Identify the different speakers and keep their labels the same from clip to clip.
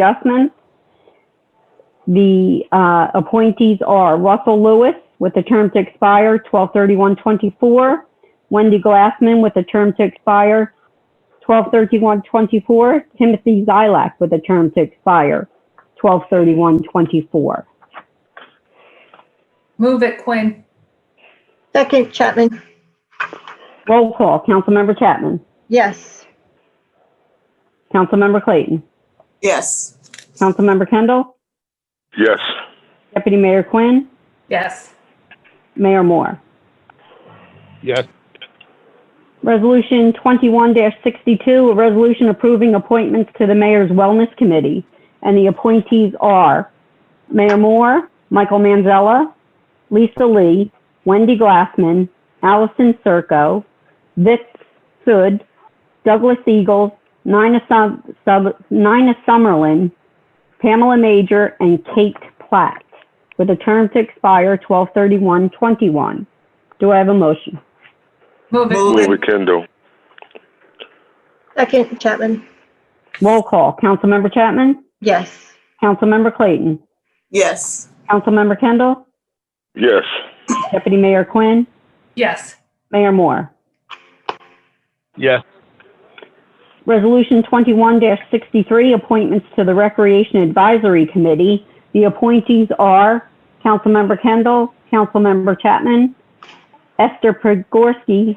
Speaker 1: adjustments. The uh, appointees are Russell Lewis with a term to expire 12/31/24, Wendy Glassman with a term to expire 12/31/24, Timothy Zilak with a term to expire 12/31/24.
Speaker 2: Move it Quinn.
Speaker 3: Second Chapman,
Speaker 1: Roll call, Councilmember Chapman.
Speaker 3: yes.
Speaker 1: Councilmember Clayton.
Speaker 4: yes,
Speaker 1: Councilmember Kendall.
Speaker 5: yes,
Speaker 1: Deputy Mayor Quinn.
Speaker 2: Yes.
Speaker 1: Mayor Moore.
Speaker 6: yes,
Speaker 1: Resolution 21-62, a resolution approving appointments to the Mayor's Wellness Committee. And the appointees are Mayor Moore, Michael Manzella, Lisa Lee, Wendy Glassman, Allison Circo, Vic Sud, Douglas Eagles, Nina Sum- Sub- Nina Summerlin, Pamela Major, and Kate Platt, with a term to expire 12/31/21. Do I have a motion?
Speaker 2: Move
Speaker 4: Move
Speaker 2: it.
Speaker 5: move it Kendall,
Speaker 3: Second Chapman,
Speaker 1: Roll call. Councilmember Chapman?
Speaker 3: yes.
Speaker 1: Councilmember Clayton?
Speaker 4: yes,
Speaker 1: Councilmember Kendall?
Speaker 5: yes,
Speaker 1: Deputy Mayor Quinn?
Speaker 2: Yes.
Speaker 1: Mayor Moore?
Speaker 6: yes,
Speaker 1: Resolution 21-63, appointments to the Recreation Advisory Committee. The appointees are Councilmember Kendall, Councilmember Chapman, Esther Pregorski,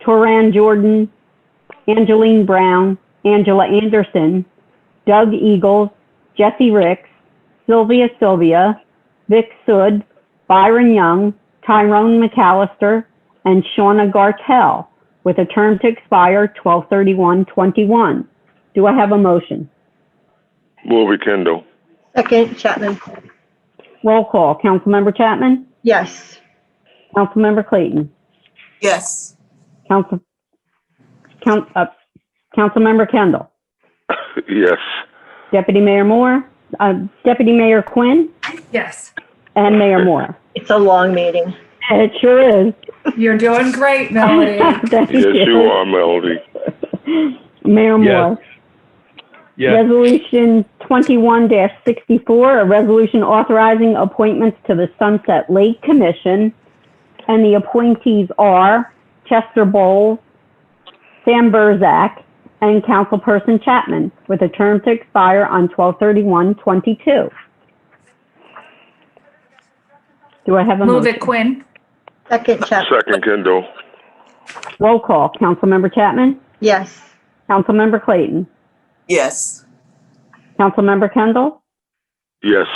Speaker 1: Toran Jordan, Angeline Brown, Angela Anderson, Doug Eagles, Jesse Ricks, Sylvia Sylvia, Vic Sud, Byron Young, Tyrone McAllister, and Shauna Gartell with a term to expire 12/31/21. Do I have a motion?
Speaker 5: move it Kendall,
Speaker 3: Second Chapman,
Speaker 1: Roll call. Councilmember Chapman?
Speaker 3: yes.
Speaker 1: Councilmember Clayton?
Speaker 4: yes,
Speaker 1: Council, count, uh, Councilmember Kendall?
Speaker 5: yes,
Speaker 1: Deputy Mayor Moore? Uh, Deputy Mayor Quinn?
Speaker 2: Yes.
Speaker 1: And Mayor Moore?
Speaker 3: It's a long meeting.
Speaker 1: It sure is.
Speaker 2: You're doing great, Melody.
Speaker 1: Thank
Speaker 5: yes, you are Melody,
Speaker 1: Mayor
Speaker 6: Yes.
Speaker 1: Moore?
Speaker 6: yes,
Speaker 1: Resolution 21-64, a resolution authorizing appointments to the Sunset Lake Commission. And the appointees are Chester Bowles, Sam Burzak, and Councilperson Chapman, with a term to expire on 12/31/22. Do I have a
Speaker 2: Move
Speaker 1: motion?
Speaker 2: it Quinn.
Speaker 3: Second Chapman,
Speaker 5: second Kendall,
Speaker 1: Roll call. Councilmember Chapman?
Speaker 3: yes.
Speaker 1: Councilmember Clayton?
Speaker 4: yes,
Speaker 1: Councilmember Kendall?
Speaker 5: yes,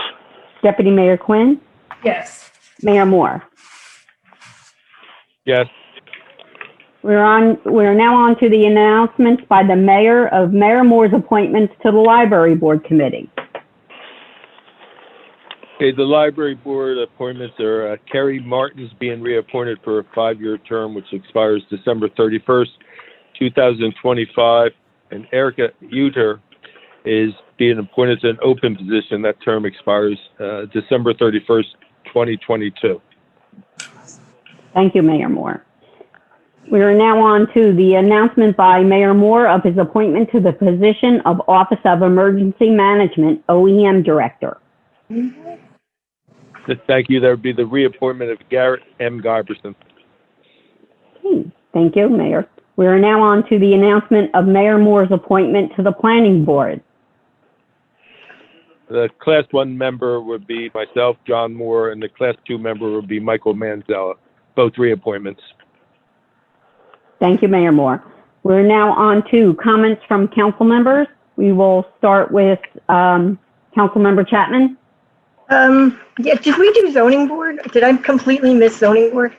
Speaker 1: Deputy Mayor Quinn?
Speaker 2: Yes.
Speaker 1: Mayor Moore?
Speaker 6: yes,
Speaker 1: We're on, we're now on to the announcements by the mayor of Mayor Moore's appointments to the Library Board Committee.
Speaker 6: Okay, the library board appointments are uh, Carrie Martin's being reappointed for a five-year term, which expires December 31st, 2025, and Erica Uter is being appointed to an open position. That term expires uh, December 31st, 2022.
Speaker 1: Thank you, Mayor Moore. We are now on to the announcement by Mayor Moore of his appointment to the position of Office of Emergency Management OEM Director.
Speaker 6: Th- Thank you. There would be the reappointment of Garrett M. Guyberson.
Speaker 1: Hmm, Thank you, Mayor. We are now on to the announcement of Mayor Moore's appointment to the Planning Board.
Speaker 6: The Class 1 member would be myself, John Moore, and the Class 2 member would be Michael Manzella, both reappointments.
Speaker 1: Thank you, Mayor Moore. We're now on to comments from council members. We will start with um, Councilmember Chapman.
Speaker 3: Um, yeah, did we do zoning board? Did I completely miss zoning board?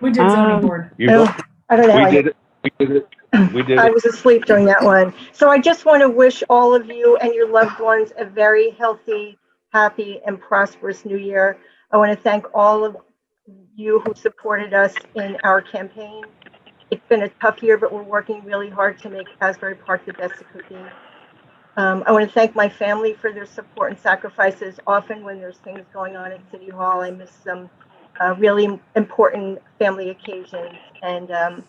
Speaker 2: We did
Speaker 1: Um,
Speaker 2: zoning board.
Speaker 6: You-
Speaker 3: No, I don't know. how I
Speaker 6: We
Speaker 3: did
Speaker 6: did it. We did it. We did
Speaker 3: I
Speaker 6: it.
Speaker 3: was asleep during that one. So I just want to wish all of you and your loved ones a very healthy, happy, and prosperous new year. I want to thank all of you who supported us in our campaign. It's been a tough year, but we're working really hard to make Asbury Park the best it could be. Um, I want to thank my family for their support and sacrifices. Often, when there's things going on at City Hall, I miss some uh, really important family occasions. And um,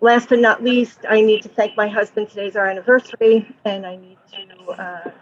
Speaker 3: Last but not least, I need to thank my husband. Today's our anniversary, and I need to uh,